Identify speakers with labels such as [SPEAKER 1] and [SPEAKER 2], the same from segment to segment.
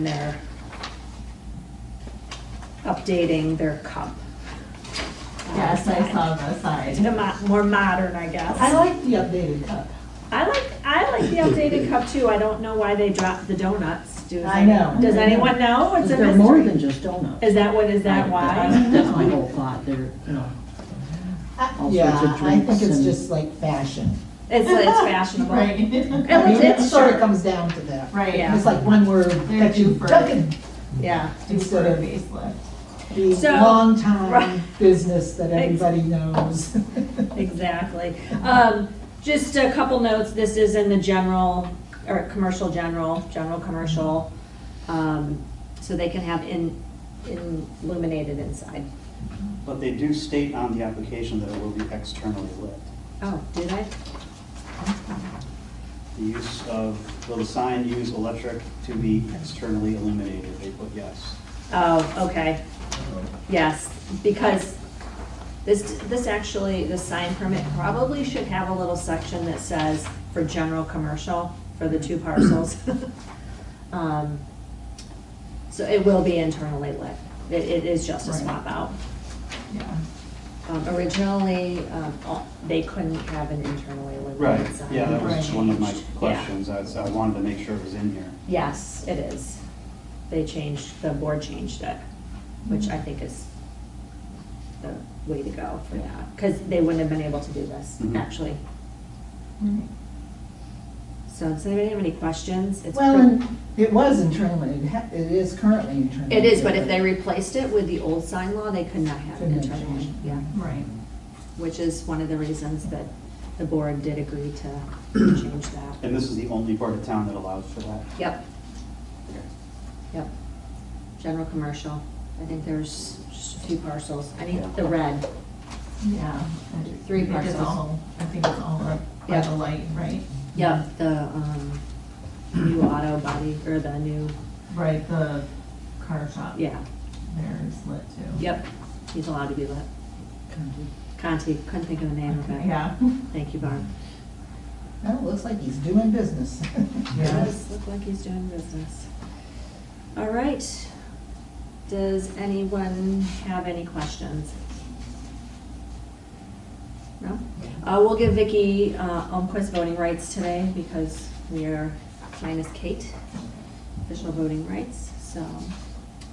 [SPEAKER 1] and they're updating their cup.
[SPEAKER 2] Yes, I saw the sign.
[SPEAKER 1] The mo- more modern, I guess.
[SPEAKER 2] I like the updated cup.
[SPEAKER 1] I like, I like the updated cup too. I don't know why they dropped the donuts. Does
[SPEAKER 2] I
[SPEAKER 1] any-
[SPEAKER 2] know.
[SPEAKER 1] Does anyone know? It's a
[SPEAKER 3] They're more
[SPEAKER 1] mystery.
[SPEAKER 3] than just donuts.
[SPEAKER 1] Is that what, is that why?
[SPEAKER 3] That's my whole thought, they're, you know,
[SPEAKER 2] I-
[SPEAKER 3] All
[SPEAKER 2] Yeah,
[SPEAKER 3] sorts of
[SPEAKER 2] I think
[SPEAKER 3] drinks
[SPEAKER 2] it's
[SPEAKER 3] and-
[SPEAKER 2] just like fashion.
[SPEAKER 1] It's, it's fashionable.
[SPEAKER 4] Right.
[SPEAKER 1] It
[SPEAKER 2] I mean,
[SPEAKER 1] was,
[SPEAKER 2] it
[SPEAKER 1] it's
[SPEAKER 2] sort of
[SPEAKER 1] sure.
[SPEAKER 2] comes down to that.
[SPEAKER 4] Right.
[SPEAKER 1] Yeah.
[SPEAKER 2] It's like one word
[SPEAKER 4] They're
[SPEAKER 2] that you
[SPEAKER 4] due for-
[SPEAKER 2] took and
[SPEAKER 1] Yeah.
[SPEAKER 4] Do for a facelift.
[SPEAKER 2] the
[SPEAKER 1] So- Right.
[SPEAKER 2] long-time business that
[SPEAKER 1] Ex-
[SPEAKER 2] everybody knows.
[SPEAKER 1] Exactly. Um, just a couple notes, this is in the general, or commercial general, general commercial. Um, so they can have in, in illuminated inside.
[SPEAKER 5] But they do state on the application that it will be externally lit.
[SPEAKER 1] Oh, did I?
[SPEAKER 5] The use of, will the sign use electric to be externally illuminated? They put yes.
[SPEAKER 1] Oh, okay. Yes, because this, this actually, the sign permit probably should have a little section that says for general commercial for the two parcels. Um, So it will be internally lit. It, it is just a
[SPEAKER 2] Right.
[SPEAKER 1] swap out.
[SPEAKER 4] Yeah.
[SPEAKER 1] Um, Originally, um, all- they couldn't have an internally
[SPEAKER 5] Right,
[SPEAKER 1] illuminated sign.
[SPEAKER 5] yeah, that was
[SPEAKER 2] Right.
[SPEAKER 5] one of my questions. I was- I wanted to make sure it was in here.
[SPEAKER 1] Yes, it is. They changed, the board changed it, which I think is the way to go for that, because they wouldn't have been able to do this,
[SPEAKER 5] Mhm.
[SPEAKER 1] actually.
[SPEAKER 4] Mm-hmm.
[SPEAKER 1] So, does anybody have any questions? It's
[SPEAKER 2] Well,
[SPEAKER 1] pre-
[SPEAKER 2] and it was internally, it ha- it is currently internally.
[SPEAKER 1] It is, but if they replaced it with the old sign law, they could not have it
[SPEAKER 2] Couldn't have
[SPEAKER 1] internally,
[SPEAKER 2] changed.
[SPEAKER 1] yeah.
[SPEAKER 4] Right.
[SPEAKER 1] Which is one of the reasons that the board did agree to change that.
[SPEAKER 5] And this is the only part of town that allows for that?
[SPEAKER 1] Yep,
[SPEAKER 5] Okay.
[SPEAKER 1] yep. General commercial. I think there's just a few parcels. I need the red.
[SPEAKER 4] Yeah.
[SPEAKER 1] Three
[SPEAKER 4] It is
[SPEAKER 1] parcels.
[SPEAKER 4] all, I think it's all up by
[SPEAKER 1] Yeah.
[SPEAKER 4] the light, right?
[SPEAKER 1] Yeah, the, um, new auto body, or the new,
[SPEAKER 4] Right, the car shop.
[SPEAKER 1] yeah,
[SPEAKER 4] There is lit too.
[SPEAKER 1] yep, he's allowed to be lit. Conti, couldn't think of the name of it.
[SPEAKER 4] Yeah.
[SPEAKER 1] Thank you, Barb.
[SPEAKER 2] Well, it looks like he's doing business.
[SPEAKER 4] Yeah.
[SPEAKER 1] Does look like he's doing business. All right, does anyone have any questions? No? Uh, we'll give Vicky, uh, Omquist voting rights today because we are minus Kate, official voting rights, so.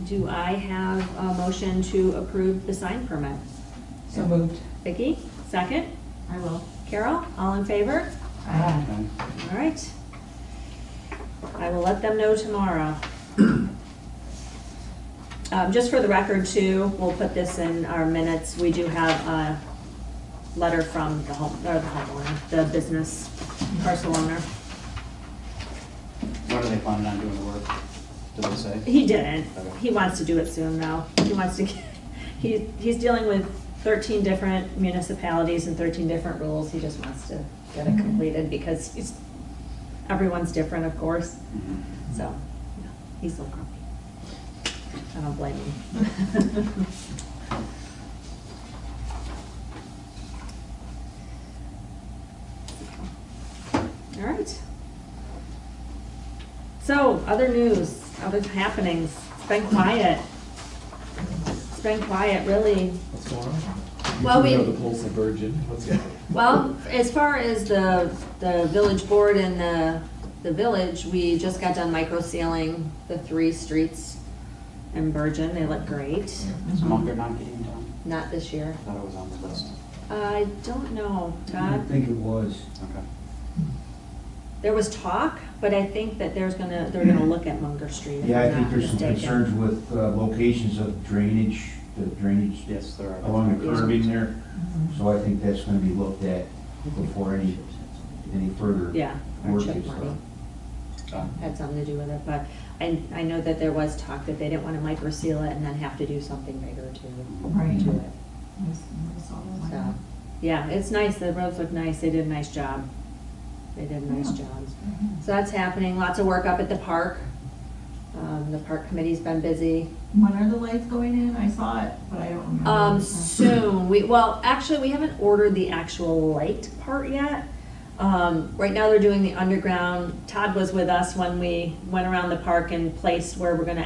[SPEAKER 1] Do I have a motion to approve the sign permit?
[SPEAKER 2] So moved.
[SPEAKER 1] Vicky, second?
[SPEAKER 4] I will.
[SPEAKER 1] Carol, all in favor?
[SPEAKER 2] Ah,
[SPEAKER 5] Okay.
[SPEAKER 1] All right. I will let them know tomorrow. Um, Just for the record too, we'll put this in our minutes. We do have a letter from the home, or the homeowner, the business parcel owner.
[SPEAKER 5] When are they planning on doing the work? Did they say?
[SPEAKER 1] He didn't. He wants to do it soon though. He wants to, get- he, he's dealing with 13 different municipalities and 13 different rules. He just wants to get it completed because he's, everyone's different, of course.
[SPEAKER 5] Mhm.
[SPEAKER 1] So, yeah, he's so grumpy. I don't blame him. All right. So, other news, other happenings. It's been quiet. It's been quiet, really.
[SPEAKER 6] What's going on?
[SPEAKER 1] Well,
[SPEAKER 6] You
[SPEAKER 1] we-
[SPEAKER 6] know the Pulse of Virgin. What's going on?
[SPEAKER 1] Well, as far as the, the village board and the, the village, we just got done micro sealing the three streets in Bergen. They look great.
[SPEAKER 5] Is Munger not getting done?
[SPEAKER 1] Not this year.
[SPEAKER 5] I thought it was on the list.
[SPEAKER 1] I don't know,
[SPEAKER 7] I don't
[SPEAKER 1] Todd.
[SPEAKER 7] think it was.
[SPEAKER 5] Okay.
[SPEAKER 1] There was talk, but I think that there's gonna, they're gonna look at Munger Street. if
[SPEAKER 7] Yeah, I
[SPEAKER 1] I'm
[SPEAKER 7] think
[SPEAKER 1] not
[SPEAKER 7] there's some
[SPEAKER 1] mistaken.
[SPEAKER 7] concerns with uh, locations of drainage, the drainage
[SPEAKER 5] Yes, there are.
[SPEAKER 7] along the curbing there.
[SPEAKER 1] Mm-hmm.
[SPEAKER 2] Mhm.
[SPEAKER 7] So I think that's gonna be looked at before any, any further
[SPEAKER 1] Yeah, our
[SPEAKER 7] work
[SPEAKER 1] chip
[SPEAKER 7] is
[SPEAKER 1] money
[SPEAKER 7] done.
[SPEAKER 5] Oh,
[SPEAKER 1] had something to do with it, but I, I know that there was talk that they didn't wanna micro seal it and then have to do something bigger
[SPEAKER 4] Right.
[SPEAKER 1] to, to it. So, yeah, it's nice, the roads look nice, they did a nice job. They did a nice
[SPEAKER 2] Yeah.
[SPEAKER 1] job. So that's happening, lots of work up at the park. Um, the park committee's been busy.
[SPEAKER 4] When are the lights going in? I saw it, but I don't remember.
[SPEAKER 1] Um, soon, we, well, actually, we haven't ordered the actual light part yet. Um, right now they're doing the underground. Todd was with us when we went around the park and placed where we're gonna